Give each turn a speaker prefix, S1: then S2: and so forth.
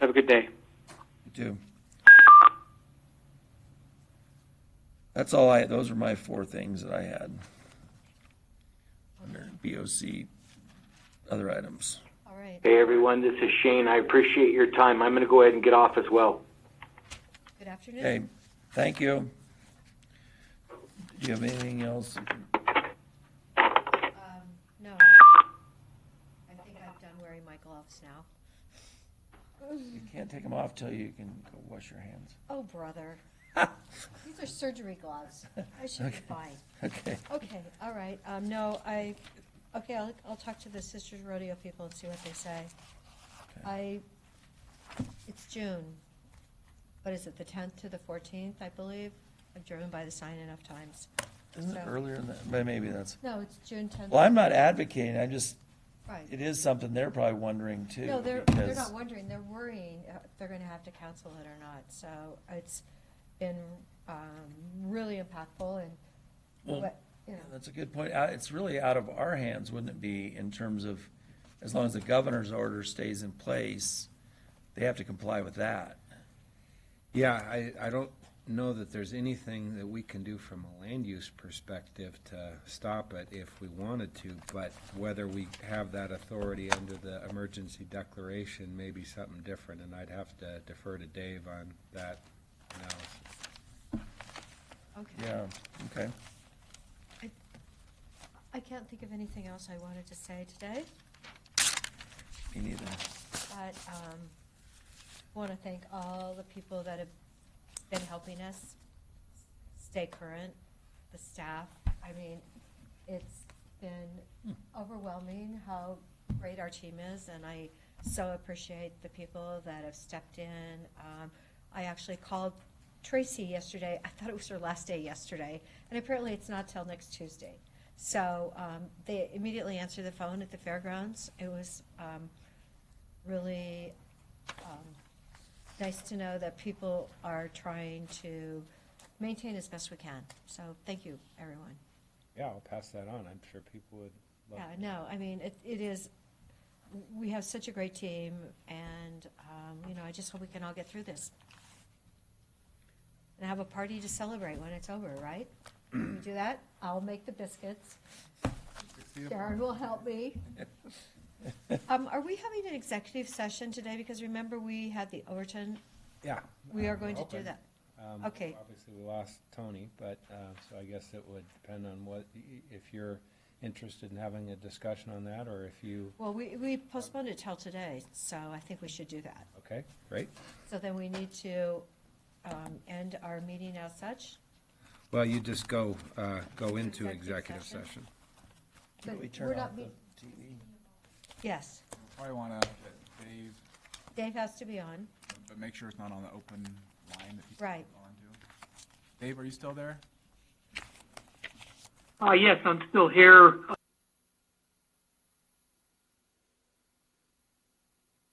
S1: Have a good day.
S2: You too. That's all I, those are my four things that I had. Under BOC, other items.
S3: All right,
S1: Hey, everyone, this is Shane. I appreciate your time. I'm going to go ahead and get off as well.
S3: good
S2: Okay,
S3: afternoon.
S2: thank you. Do you have anything else?
S3: Um, No. I think I've done wearing my gloves now.
S2: You can't take them off till you can go wash your hands.
S3: Oh, brother. These are surgery gloves. I should be fine.
S2: Okay,
S3: Okay, all right. Um, no, I, okay, I'll, I'll talk to the Sisters Rodeo people and see what they say. I, it's June. What is it, the tenth to the fourteenth, I believe? I've driven by the sign enough times.
S2: isn't it
S3: So-
S2: earlier than that? But maybe that's,
S3: No, it's June tenth,
S2: well, I'm not advocating, I just,
S3: right.
S2: it is something they're probably wondering too.
S3: No, they're, they're
S2: because-
S3: not wondering, they're worrying uh, if they're gonna have to cancel it or not, so it's been, um, really impactful and,
S2: Well,
S3: what- you know,
S2: That's a good point. Uh, It's really out of our hands, wouldn't it be, in terms of, as long as the governor's order stays in place, they have to comply with that.
S4: Yeah, I, I don't know that there's anything that we can do from a land use perspective to stop it if we wanted to, but whether we have that authority under the emergency declaration may be something different, and I'd have to defer to Dave on that analysis.
S3: okay.
S2: uh, Yeah, okay.
S3: I can't think of anything else I wanted to say today,
S2: Me neither.
S3: but um, want to thank all the people that have been helping us stay current, the staff. I mean, it's been overwhelming how great our team is, and I so appreciate the people that have stepped in. Um, I actually called Tracy yesterday. I thought it was her last day yesterday, and apparently it's not till next Tuesday. So um, they immediately answered the phone at the fairgrounds. It was um, really um, nice to know that people are trying to maintain as best we can. So thank you, everyone.
S4: Yeah, I'll pass that on. I'm sure people would love
S3: Yeah,
S4: it.
S3: no, I mean, it, it is, we have such a great team, and, um, you know, I just hope we can all get through this. And have a party to celebrate when it's over, right? Can we do that? I'll make the biscuits. Darren will help me. Um, are we having an executive session today? Because remember, we had the Overton,
S4: Yeah.
S3: we are
S4: um,
S3: going to do
S4: open.
S3: that.
S4: Um,
S3: Okay.
S4: Obviously, we lost Tony, but, uh, so I guess it would depend on what, if you're interested in having a discussion on that, or if you,
S3: Well, we, we postponed it till today, so I think we should do that.
S4: okay, great.
S3: So then we need to, um, end our meeting as such.
S4: Well, you just go, uh, go into
S3: Executive
S4: executive
S3: session?
S4: session.
S3: But
S2: Can we
S3: we're
S2: turn
S3: not
S2: off the
S3: meet-
S2: TV?
S3: Yes,
S5: Probably want to get Dave,
S3: Dave has to be on.
S5: but make sure it's not on the open line that he's
S3: Right.
S5: onto. Dave, are you still there?
S6: Uh, yes, I'm still here.